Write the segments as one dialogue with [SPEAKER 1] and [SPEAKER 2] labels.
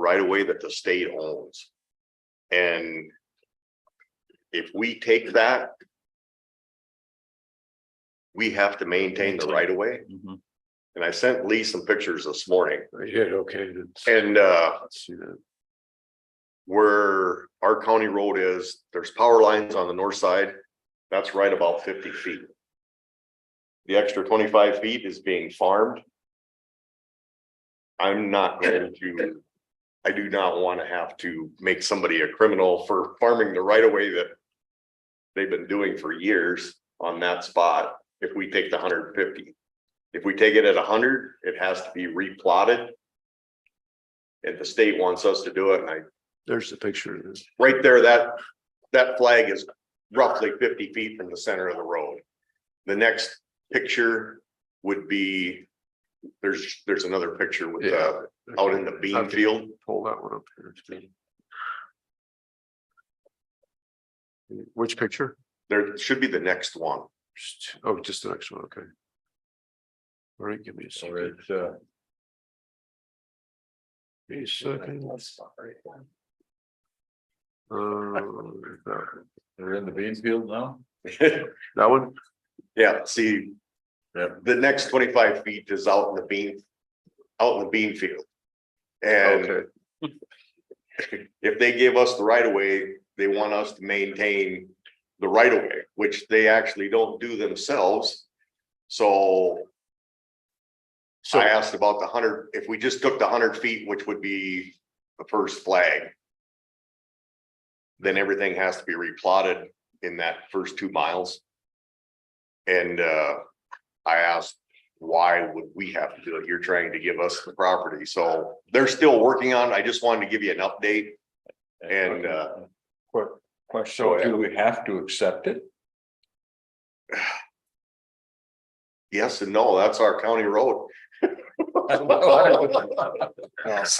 [SPEAKER 1] right away that the state owns. And if we take that, we have to maintain the right of way.
[SPEAKER 2] Mhm.
[SPEAKER 1] And I sent Lee some pictures this morning
[SPEAKER 3] I did, okay. let's-
[SPEAKER 1] and, uh,
[SPEAKER 3] Let's see that.
[SPEAKER 1] where our county road is, there's power lines on the north side. That's right about fifty feet. The extra twenty-five feet is being farmed. I'm not going to, I do not want to have to make somebody a criminal for farming the right of way that they've been doing for years on that spot if we take the hundred and fifty. If we take it at hundred, it has to be replotted. If the state wants us to do it, and I
[SPEAKER 3] There's the picture of this.
[SPEAKER 1] right there, that, that flag is roughly fifty feet from the center of the road. The next picture would be, there's, there's another picture with, uh,
[SPEAKER 3] Oh,
[SPEAKER 1] out in the bean
[SPEAKER 3] Okay,
[SPEAKER 1] field.
[SPEAKER 3] Pull that one up here. too. Which picture?
[SPEAKER 1] There should be the next one.
[SPEAKER 3] Just- Oh, just the next one, okay. All right, give me a
[SPEAKER 2] So
[SPEAKER 3] second.
[SPEAKER 2] it's, uh,
[SPEAKER 3] Give me a second. Uh, that-
[SPEAKER 2] they're in the bean field now?
[SPEAKER 3] Uh, That one?
[SPEAKER 1] Yeah, see,
[SPEAKER 2] Yep.
[SPEAKER 1] the next twenty-five feet is out in the bean, out in the bean field. And
[SPEAKER 3] Okay,
[SPEAKER 1] if they give us the right of way, they want us to maintain the right of way, which they actually don't do themselves. So
[SPEAKER 3] so,
[SPEAKER 1] I asked about the hundred, if we just took the hundred feet, which would be the first flag. Then everything has to be replotted in that first two miles. And uh, I asked, why would we have to do it? You're trying to give us the property, so they're still working on, it. I just wanted to give you an update. And, uh,
[SPEAKER 2] Quick question,
[SPEAKER 1] Go ahead.
[SPEAKER 2] do we have to accept it?
[SPEAKER 1] Yes and no, that's our county road. Uh, I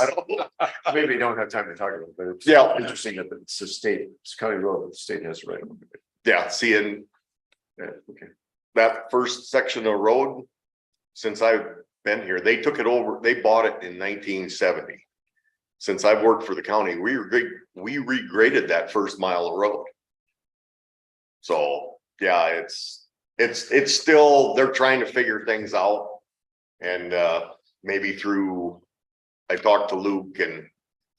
[SPEAKER 1] don't know.
[SPEAKER 3] maybe we don't have time to talk about it, but it's.
[SPEAKER 1] Yeah.
[SPEAKER 3] Interesting that it's the state, it's county road, the state has right. of way.
[SPEAKER 1] Yeah, seeing
[SPEAKER 3] Yeah, okay.
[SPEAKER 1] that first section of road, since I've been here, they took it over, they bought it in nineteen seventy. Since I've worked for the county, we re, we regraded that first mile of road. So, yeah, it's, it's, it's still, they're trying to figure things out. And, uh, maybe through, I talked to Luke and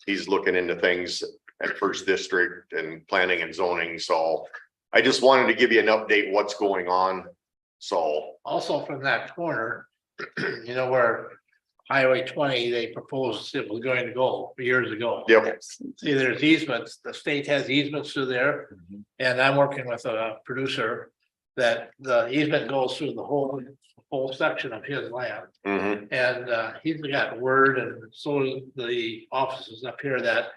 [SPEAKER 1] he's looking into things at First District and planning and zoning, so I just wanted to give you an update what's going on. So,
[SPEAKER 4] also from that corner, you know, where Highway twenty, they proposed it was going to go years ago.
[SPEAKER 1] yep,
[SPEAKER 4] See, there's easements, the state has easements through there,
[SPEAKER 2] Uh-huh.
[SPEAKER 4] and I'm working with a producer that the easement goes through the whole, whole section of his land.
[SPEAKER 1] mhm,
[SPEAKER 4] And uh, he's got word and so do the offices up here that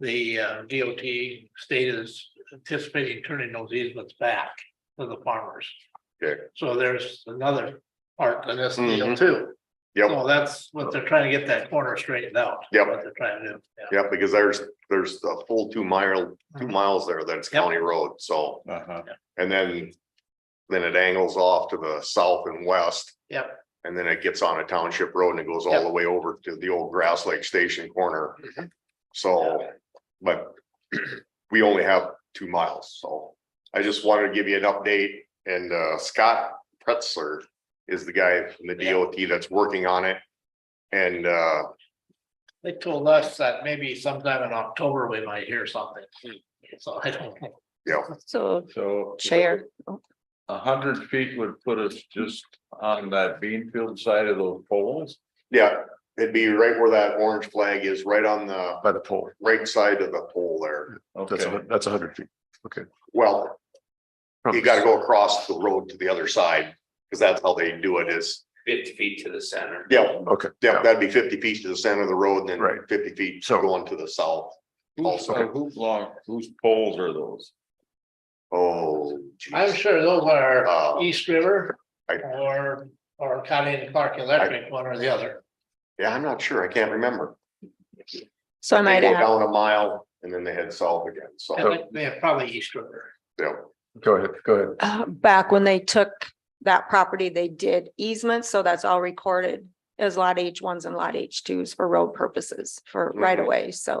[SPEAKER 4] the uh, DOT state is anticipating turning those easements back to the farmers.
[SPEAKER 1] Okay.
[SPEAKER 4] So there's another part to this deal
[SPEAKER 1] Mhm.
[SPEAKER 4] too.
[SPEAKER 1] yep,
[SPEAKER 4] So that's what they're trying to get that corner straightened out.
[SPEAKER 1] Yep.
[SPEAKER 4] What they're trying to do. yeah.
[SPEAKER 1] yep, because there's, there's a full two mile, two miles there that's
[SPEAKER 4] Uh-huh. Yep.
[SPEAKER 1] county road, so,
[SPEAKER 2] Uh-huh.
[SPEAKER 1] and then. Then it angles off to the south and west,
[SPEAKER 4] Yep.
[SPEAKER 1] and then it gets on a township road and it goes all the way over to the old Grass Lake Station corner.
[SPEAKER 4] Mhm.
[SPEAKER 1] So, but we only have two miles, so I just wanted to give you an update and uh Scott Pretzler is the guy from the
[SPEAKER 4] Yeah.
[SPEAKER 1] DOT that's working on it. And uh,
[SPEAKER 4] They told us that maybe sometime in October we might hear something.
[SPEAKER 5] Hmm.
[SPEAKER 4] So I don't know.
[SPEAKER 6] So
[SPEAKER 2] So.
[SPEAKER 6] chair,
[SPEAKER 2] A hundred feet would put us just on that bean field side of those poles.
[SPEAKER 1] yeah, it'd be right where that orange flag is, right on the
[SPEAKER 3] By the pole,
[SPEAKER 1] right side of the pole there.
[SPEAKER 3] that's, a
[SPEAKER 2] Okay,
[SPEAKER 3] hun- that's a hundred feet.
[SPEAKER 1] Well,
[SPEAKER 3] from
[SPEAKER 1] you
[SPEAKER 3] the-
[SPEAKER 1] gotta go across the road to the other side, because that's how they do it is,
[SPEAKER 5] fifty feet to the center.
[SPEAKER 1] yeah,
[SPEAKER 3] Okay.
[SPEAKER 1] yeah, that'd be fifty feet to the center of the road and then
[SPEAKER 3] Right.
[SPEAKER 1] fifty feet
[SPEAKER 3] So-
[SPEAKER 1] going to the south.
[SPEAKER 2] who's,
[SPEAKER 1] Okay.
[SPEAKER 2] who's long, whose poles are those?
[SPEAKER 1] Oh.
[SPEAKER 4] I'm
[SPEAKER 1] geez.
[SPEAKER 4] sure those
[SPEAKER 1] Uh,
[SPEAKER 4] are East River
[SPEAKER 1] I-
[SPEAKER 4] or, or County and Clark Electric, one or the other.
[SPEAKER 1] Yeah, I'm not sure, I can't remember.
[SPEAKER 6] so I
[SPEAKER 1] They
[SPEAKER 6] might
[SPEAKER 1] go
[SPEAKER 6] add,
[SPEAKER 1] down a mile and then they head south again,
[SPEAKER 4] I
[SPEAKER 1] so,
[SPEAKER 4] think They're probably East River.
[SPEAKER 1] yeah,
[SPEAKER 3] Go ahead, go ahead.
[SPEAKER 6] uh, back when they took that property, they did easements, so that's all recorded as lot H ones and lot H twos for road purposes for right of way, so.